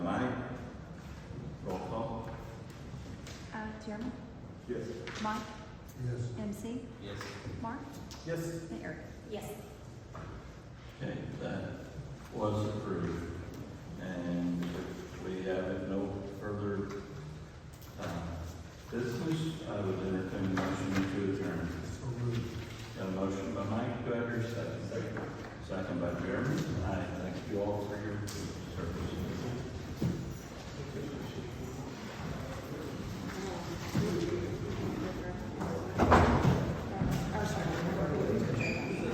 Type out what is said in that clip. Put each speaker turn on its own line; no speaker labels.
Uh, Chairman,
Yes.
Mike,
Yes.
MC,
Yes.
Mark,
Yes.
and Eric.
Yes.
Okay, that was approved. And if we have no further, uh, business, I would entertain a motion to adjourn.
So moved.
Got a motion by Mike, do I hear a second? Second by Jeremy. I thank you all for your service.